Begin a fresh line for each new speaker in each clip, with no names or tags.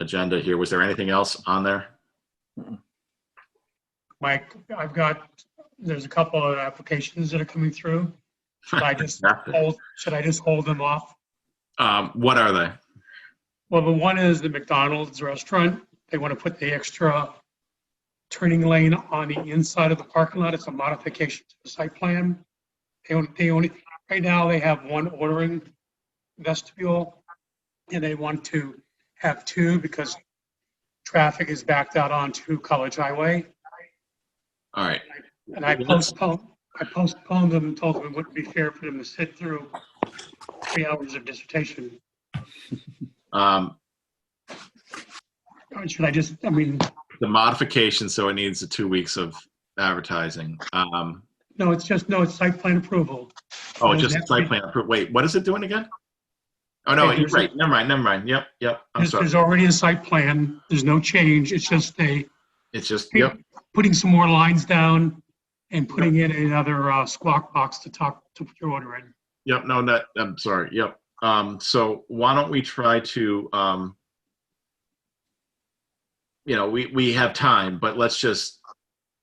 agenda here. Was there anything else on there?
Mike, I've got, there's a couple of applications that are coming through. Should I just
Nothing.
hold, should I just hold them off?
Um, what are they?
Well, the one is the McDonald's restaurant. They want to put the extra turning lane on the inside of the parking lot. It's a modification to the site plan. They only, they only, right now they have one ordering vestibule and they want to have two because traffic is backed out onto College Highway.
All right.
And I postponed, I postponed them and told them it wouldn't be fair for them to sit through three hours of dissertation.
Um,
Or Uh, Should I just, I mean,
the modification, so it needs the two weeks of advertising. Um,
no, it's just, no, it's site plan approval.
oh, just site plan. appro- Wait, what is it doing again? Oh, no,
Okay,
you're
there's a-
right. Never mind, never mind. Yep, yep. I'm
There's
sorry.
there's already a site plan. There's no change. It's just a,
It's just, yep,
putting some more lines down and putting in another uh, squawk box to talk, to put your order in.
yep. No, that, I'm sorry. Yep. Um, so why don't we try to, um, you know, we, we have time, but let's just,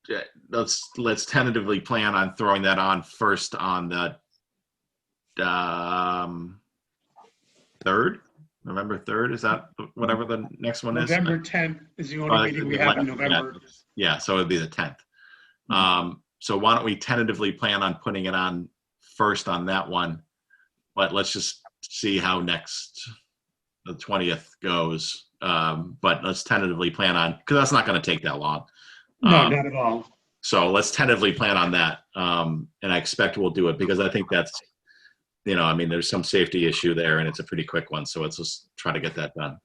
yeah, let's, let's tentatively plan on throwing that on first on the, um, third, November 3rd, is that whatever the next one is?
November 10th is the
Uh,
only meeting we have in
yeah.
November.
Yeah, so it'd be the tenth.
Mm-hmm.
Um, so why don't we tentatively plan on putting it on first on that one? But let's just see how next, the twentieth goes. Um, but let's tentatively plan on, because that's not gonna take that long.
No,
Um,
not at all.
so let's tentatively plan on that. Um, and I expect we'll do it because I think that's, you know, I mean, there's some safety issue there and it's a pretty quick one. So let's just try to get that done.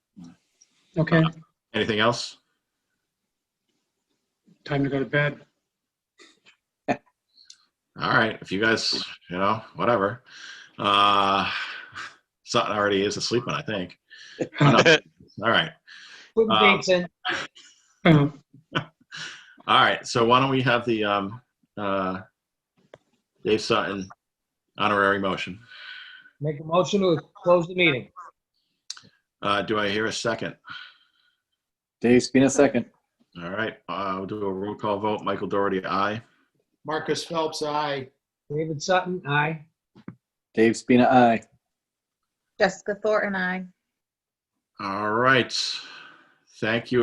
Okay,
uh, Anything else?
time to go to bed.
all right if you guys you know whatever uh sutton already is asleep i think Oh, no. all right
Put the
Um,
dates in.
Uh,
all right so why don't we have the um uh dave sutton honorary motion
Make a motion to close the meeting.
uh do i hear a second
Dave Spina, second.
all right uh we'll do a roll call vote michael doherty aye
Marcus Phelps, aye.
David Sutton, aye.
Dave Spina, aye.
Jessica Thor and I.
all right thank you